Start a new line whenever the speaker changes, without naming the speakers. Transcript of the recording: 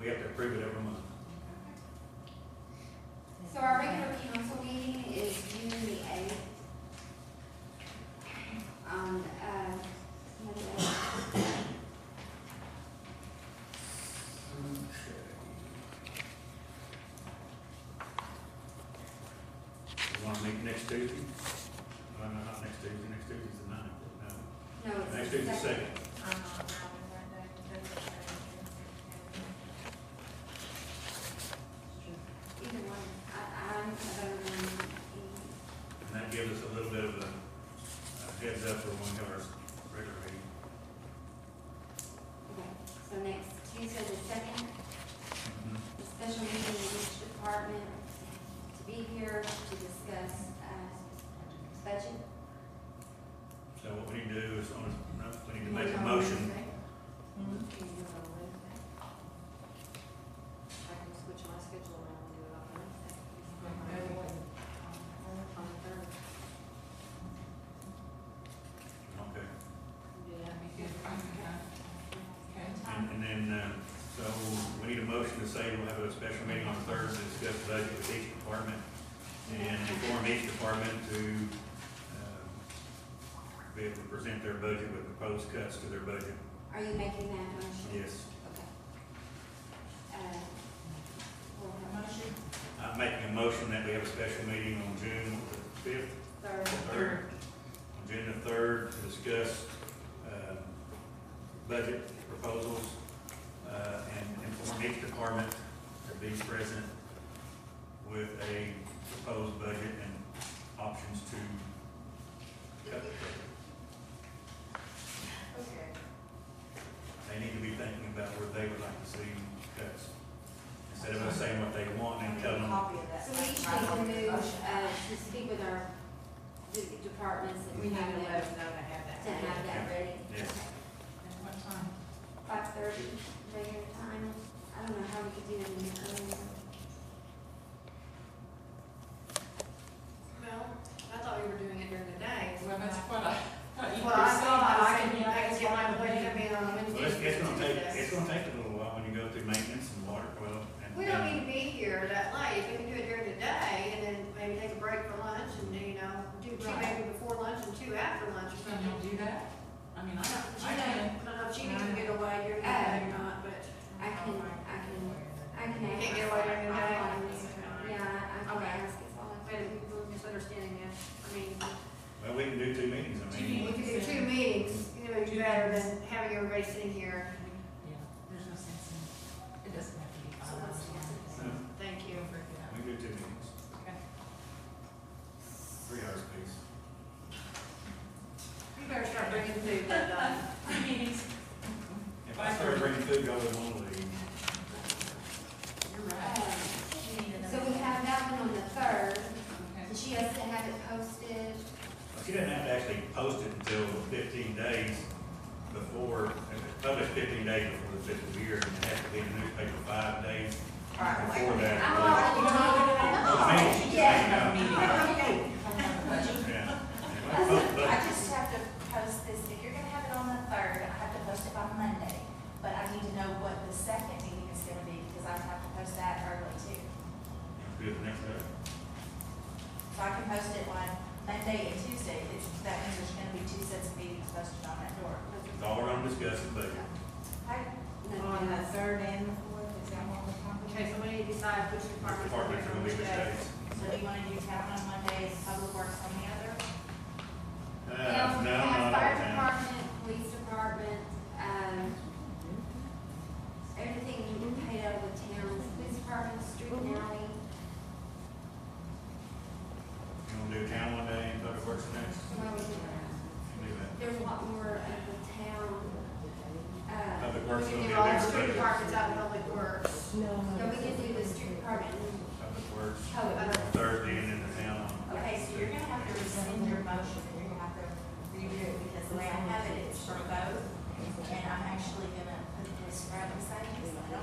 We have to approve it every month.
So our regular council meeting is June the eighth. Um, uh, Monday.
You wanna meet next Tuesday? No, no, not next Tuesday, next Tuesday's the ninth, no,
no, it's.
next Tuesday's the second.
Either one, I, I'm available on the
And that gives us a little bit of a a heads up for when we have our regular meeting.
okay, so next Tuesday the second, the special meeting of each department to be here to discuss, uh, budget.
So what we need to do is, on- we need to make a motion,
I can switch my schedule around and do it on Wednesday. On the third.
okay, and,
Okay.
and then, uh, so we need a motion to say we'll have a special meeting on Thursday to discuss the budget with each department, and inform each department to, um, be able to present their budget with proposed cuts to their budget,
Are you making that motion?
yes.
Okay. Uh, we'll have
Motion
I'm making a motion that we have a special meeting on June the fifth,
third,
third, on June the third to discuss, um, budget proposals, uh, and inform each department to be present with a proposed budget and options to cut.
Okay.
They need to be thinking about where they would like to see cuts, instead of us saying what they want and telling them.
So we each need to move, uh, to speak with our d- departments and
We need to
have
let
that,
us know to have
to
that.
have that ready.
Yes.
At what time?
Five thirty, regular time. I don't know how we could do it in the early.
Well, I thought we were doing it during the day.
Well, that's what I.
Well, I thought I can, I can get my budget
I
coming in on
Well,
Wednesday.
it's, it's gonna take, it's gonna take a little while when you go through maintenance and water, well, and.
We don't need to be here that late, we can do it during the day, and then maybe take a break for lunch, and, do, you know, do two
Right.
maybe before lunch and two after lunch or
Can
something.
you do that? I mean, I don't,
She
I
may,
can.
I don't know if she can get away during the day or not, but
I can, I can, I can.
you
ask.
can't get away during the day.
I'll call. Yeah, I I can
Okay.
ask. It's all I
Wait,
can do.
we're misunderstanding that, I mean,
Well, we can do two meetings, I
Do
mean,
you-
we could do two meetings, you know, it'd be better than having everybody sitting here,
Yeah, there's no sense in, it doesn't have to be five hours.
so,
long.
thank you.
we can do two meetings,
Okay.
three hours apiece.
You better start bringing food uh, that night.
Three meetings,
If I started bringing food, y'all would wanna leave.
you're right.
Uh, So we have that one on the third,
Okay.
and she has to have it posted.
But She doesn't have to actually post it until fifteen days before, if it's published fifteen days before the fiscal year, and it has to be in the newspaper five days before
I'm
that.
already talking.
Meeting,
Yeah.
meeting,
I
yeah. Yeah, post budget.
just have to post this, if you're gonna have it on the third, I have to post it by Monday, but I need to know what the second meeting is gonna be, because I have to post that early too.
Do it next day.
So I can post it on Monday and Tuesday, it's, that means there's gonna be two sets of meetings posted on that door.
It's all around discussing budget.
Oh,
On the third and the fourth, is that what we're talking about?
Okay, so we need to decide which department's going
Departments
to
are
be
gonna be which
which day.
days.
So do you wanna do town on one day, and public works on the other?
Uh, no,
We have
not all
fire
the time.
department, police department, um, everything you can pay out of the town's police department, street and alley.
You wanna do town one day and public works the next?
So how we do that?
You do that.
There's a lot more of the town, uh,
Public
We
works will
can
be
do all the
next
street
budget.
departments out in public works.
so we can do the street department and
Public works
public works.
on Thursday and then the town on.
Okay, so you're gonna have to rescind your motion, and you're gonna have to redo it, because the way I have it, it's for both, and I'm actually gonna put this right beside this one.